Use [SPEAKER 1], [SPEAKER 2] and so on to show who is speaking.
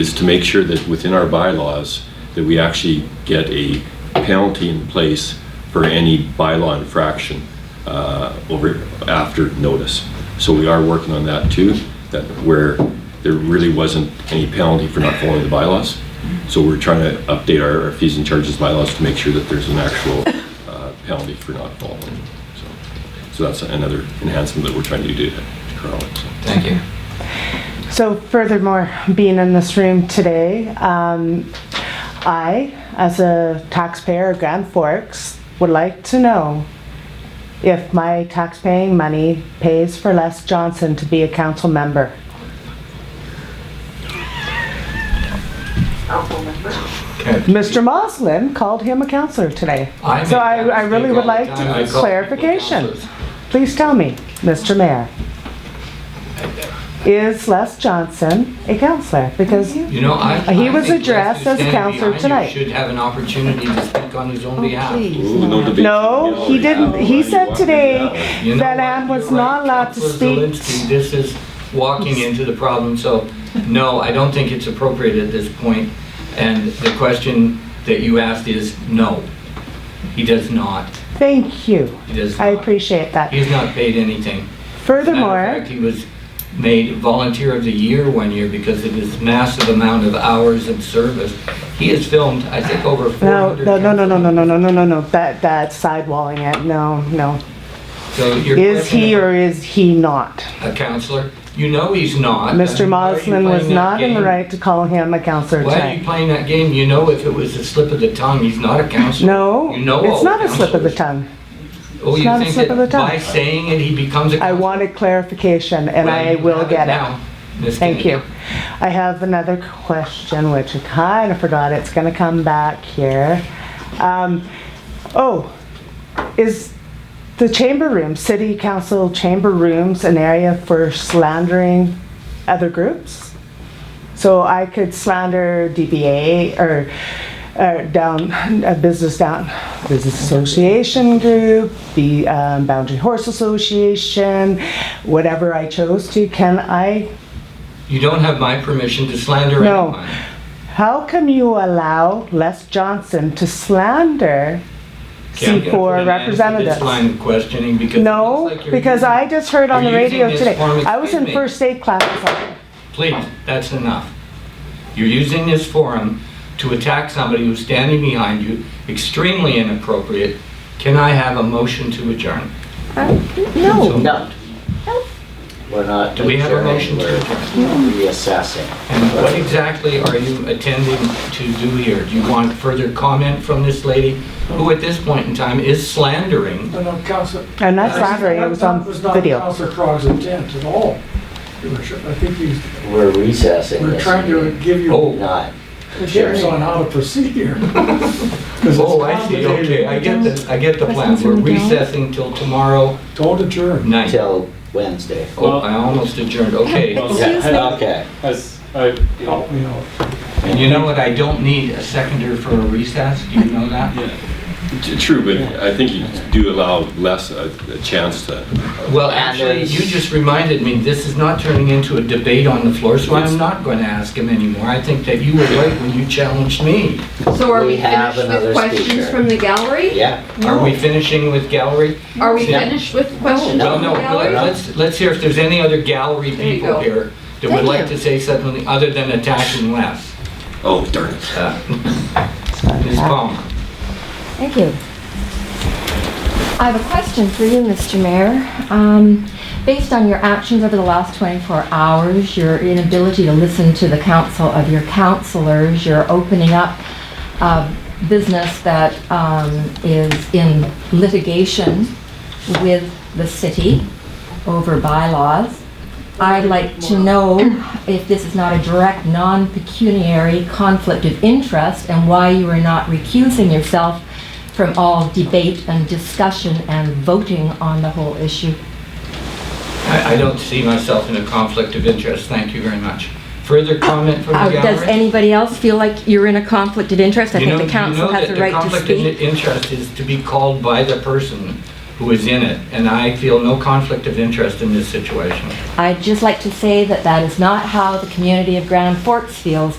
[SPEAKER 1] is to make sure that within our bylaws, that we actually get a penalty in place for any bylaw infraction uh, over, after notice. So we are working on that too, that where there really wasn't any penalty for not following the bylaws. So we're trying to update our our fees and charges bylaws to make sure that there's an actual uh, penalty for not following. So so that's another enhancement that we're trying to do to Corral. so.
[SPEAKER 2] Thank you.
[SPEAKER 3] So furthermore, being in this room today, um, I, as a taxpayer of Grand Forks, would like to know if my taxpaying money pays for Les Johnson to be a council member. Mr. Moslin called him a counselor today.
[SPEAKER 2] I
[SPEAKER 3] So
[SPEAKER 2] make
[SPEAKER 3] I,
[SPEAKER 2] that
[SPEAKER 3] I
[SPEAKER 2] mistake
[SPEAKER 3] really would
[SPEAKER 2] all the
[SPEAKER 3] like
[SPEAKER 2] time. I call people
[SPEAKER 3] clarification.
[SPEAKER 2] counselors.
[SPEAKER 3] Please tell me, Mr. Mayor. Is Les Johnson a counselor? Because
[SPEAKER 2] You know, I.
[SPEAKER 3] He
[SPEAKER 2] I
[SPEAKER 3] was
[SPEAKER 2] think
[SPEAKER 3] addressed
[SPEAKER 2] Justice
[SPEAKER 3] as
[SPEAKER 2] Kennedy
[SPEAKER 3] counselor
[SPEAKER 2] behind you
[SPEAKER 3] tonight. Oh,
[SPEAKER 2] Should have an opportunity to speak on his own behalf.
[SPEAKER 1] Ooh, no debate.
[SPEAKER 3] No, he didn't, he said today
[SPEAKER 2] You know
[SPEAKER 3] that
[SPEAKER 2] what?
[SPEAKER 3] Ann was
[SPEAKER 2] You're right,
[SPEAKER 3] not allowed to
[SPEAKER 2] Counselor
[SPEAKER 3] speak.
[SPEAKER 2] Zelinski, This is walking into the problem, so no, I don't think it's appropriate at this point. And the question that you asked is, no, he does not.
[SPEAKER 3] Thank you.
[SPEAKER 2] He does
[SPEAKER 3] I
[SPEAKER 2] not.
[SPEAKER 3] appreciate that.
[SPEAKER 2] He's not paid anything. Matter of
[SPEAKER 3] Furthermore,
[SPEAKER 2] fact, he was made volunteer of the year one year because of his massive amount of hours of service. He has filmed, I think, over
[SPEAKER 3] no,
[SPEAKER 2] 400.
[SPEAKER 3] no, no, no, no, no, no, no, no, no, no, that, that's sidewalling it, no, no.
[SPEAKER 2] So your
[SPEAKER 3] Is
[SPEAKER 2] question
[SPEAKER 3] he
[SPEAKER 2] about
[SPEAKER 3] or is he not?
[SPEAKER 2] A counselor? You know he's not. I
[SPEAKER 3] Mr.
[SPEAKER 2] mean, why are Uh, you
[SPEAKER 3] Moslin was
[SPEAKER 2] playing that
[SPEAKER 3] not in the
[SPEAKER 2] game?
[SPEAKER 3] right to call him a counselor
[SPEAKER 2] Why are you
[SPEAKER 3] tonight.
[SPEAKER 2] playing that game? You know if it was a slip of the tongue, he's not a counselor.
[SPEAKER 3] No,
[SPEAKER 2] You know all
[SPEAKER 3] it's not a slip of the
[SPEAKER 2] counselors.
[SPEAKER 3] tongue.
[SPEAKER 2] Oh,
[SPEAKER 3] It's
[SPEAKER 2] you
[SPEAKER 3] not a
[SPEAKER 2] think
[SPEAKER 3] slip of the
[SPEAKER 2] that
[SPEAKER 3] tongue.
[SPEAKER 2] by saying it, he becomes a
[SPEAKER 3] I
[SPEAKER 2] counselor?
[SPEAKER 3] wanted clarification and
[SPEAKER 2] Well,
[SPEAKER 3] I
[SPEAKER 2] you
[SPEAKER 3] will
[SPEAKER 2] have
[SPEAKER 3] get it.
[SPEAKER 2] now, Ms.
[SPEAKER 3] Thank
[SPEAKER 2] Kennedy.
[SPEAKER 3] you. I have another question, which I kind of forgot. It's going to come back here. Um, oh, is the chamber room, city council chamber rooms, an area for slandering other groups? So I could slander DBA or uh, down a business down business association group, the um, Boundary Horse Association, whatever I chose to. Can I
[SPEAKER 2] You don't have my permission to slander
[SPEAKER 3] No.
[SPEAKER 2] anyone.
[SPEAKER 3] How come you allow Les Johnson to slander
[SPEAKER 2] Can't get put an
[SPEAKER 3] C4
[SPEAKER 2] end to This line
[SPEAKER 3] representatives?
[SPEAKER 2] of questioning because. it
[SPEAKER 3] No,
[SPEAKER 2] looks like you're
[SPEAKER 3] because
[SPEAKER 2] using-
[SPEAKER 3] I just heard on the
[SPEAKER 2] you're using
[SPEAKER 3] radio
[SPEAKER 2] this
[SPEAKER 3] today.
[SPEAKER 2] form as
[SPEAKER 3] I was in
[SPEAKER 2] bait.
[SPEAKER 3] first aid classes.
[SPEAKER 2] Please, that's enough. You're using this forum to attack somebody who's standing behind you, extremely inappropriate. Can I have a motion to adjourn?
[SPEAKER 4] No.
[SPEAKER 5] No. We're not.
[SPEAKER 2] Do we have a motion to
[SPEAKER 5] We're
[SPEAKER 2] adjourn?
[SPEAKER 5] reassessing.
[SPEAKER 2] And what exactly are you attending to do here? Do you want further comment from this lady, who at this point in time is slandering?
[SPEAKER 6] No, no, Counselor.
[SPEAKER 3] I'm not slandering, it was on
[SPEAKER 6] It
[SPEAKER 3] video.
[SPEAKER 6] was not Counselor Crog's intent at all, Your Worship. I think he's,
[SPEAKER 5] We're recessing
[SPEAKER 6] we're
[SPEAKER 5] this.
[SPEAKER 6] trying to
[SPEAKER 5] meeting.
[SPEAKER 6] give you
[SPEAKER 2] Oh,
[SPEAKER 5] Not.
[SPEAKER 6] tips on how to proceed here. 'Cause it's
[SPEAKER 2] Oh, I see, okay, I get the, I get the plan. We're recessing till tomorrow
[SPEAKER 6] complicated. Don't adjourn.
[SPEAKER 2] night.
[SPEAKER 5] Till Wednesday.
[SPEAKER 2] Oh, I almost adjourned, okay.
[SPEAKER 7] Excuse me.
[SPEAKER 5] Okay.
[SPEAKER 7] As I,
[SPEAKER 6] Help me out.
[SPEAKER 2] And you know what, I don't need a seconder for a recess, do you know that?
[SPEAKER 1] T- True, but I think you do allow less a a chance to,
[SPEAKER 2] Well,
[SPEAKER 5] And
[SPEAKER 2] actually,
[SPEAKER 5] there's-
[SPEAKER 2] you just reminded me, this is not turning into a debate on the floor, so
[SPEAKER 1] It's-
[SPEAKER 2] I'm not going to ask him anymore. I think that you were right when you challenged me.
[SPEAKER 7] so are
[SPEAKER 5] We
[SPEAKER 7] we
[SPEAKER 5] have
[SPEAKER 7] finished with
[SPEAKER 5] another
[SPEAKER 7] questions
[SPEAKER 5] speaker.
[SPEAKER 7] from the gallery?
[SPEAKER 5] Yeah.
[SPEAKER 2] Are we finishing with gallery?
[SPEAKER 7] Are we
[SPEAKER 2] Yeah.
[SPEAKER 7] finished with questions
[SPEAKER 2] Well,
[SPEAKER 7] from the
[SPEAKER 2] no,
[SPEAKER 7] gallery?
[SPEAKER 2] let's, let's hear if there's any other gallery
[SPEAKER 7] There you
[SPEAKER 2] people
[SPEAKER 7] go.
[SPEAKER 2] here that would
[SPEAKER 7] Thank
[SPEAKER 2] like
[SPEAKER 7] you.
[SPEAKER 2] to say something other than attacking Les.
[SPEAKER 1] oh darn it.
[SPEAKER 2] Uh, Ms. Palmer.
[SPEAKER 8] Thank you. I have a question for you, Mr. Mayor. Um, Based on your actions over the last 24 hours, your inability to listen to the counsel of your counselors, you're opening up uh, business that um, is in litigation with the city over bylaws. I'd like to know if this is not a direct, non-pecuniary conflict of interest and why you are not recusing yourself from all debate and discussion and voting on the whole issue.
[SPEAKER 2] I, I don't see myself in a conflict of interest, thank you very much. Further comment from
[SPEAKER 8] Uh,
[SPEAKER 2] the
[SPEAKER 8] Does
[SPEAKER 2] gallery?
[SPEAKER 8] anybody else feel like you're in a conflict of interest? I
[SPEAKER 2] You know-
[SPEAKER 8] think
[SPEAKER 2] you
[SPEAKER 8] the council
[SPEAKER 2] know
[SPEAKER 8] has
[SPEAKER 2] that
[SPEAKER 8] the right to
[SPEAKER 2] conflict of
[SPEAKER 8] speak.
[SPEAKER 2] interest is to be called by the person who is in it, and I feel no conflict of interest in this situation.
[SPEAKER 8] I'd just like to say that that is not how the community of Grand Forks feels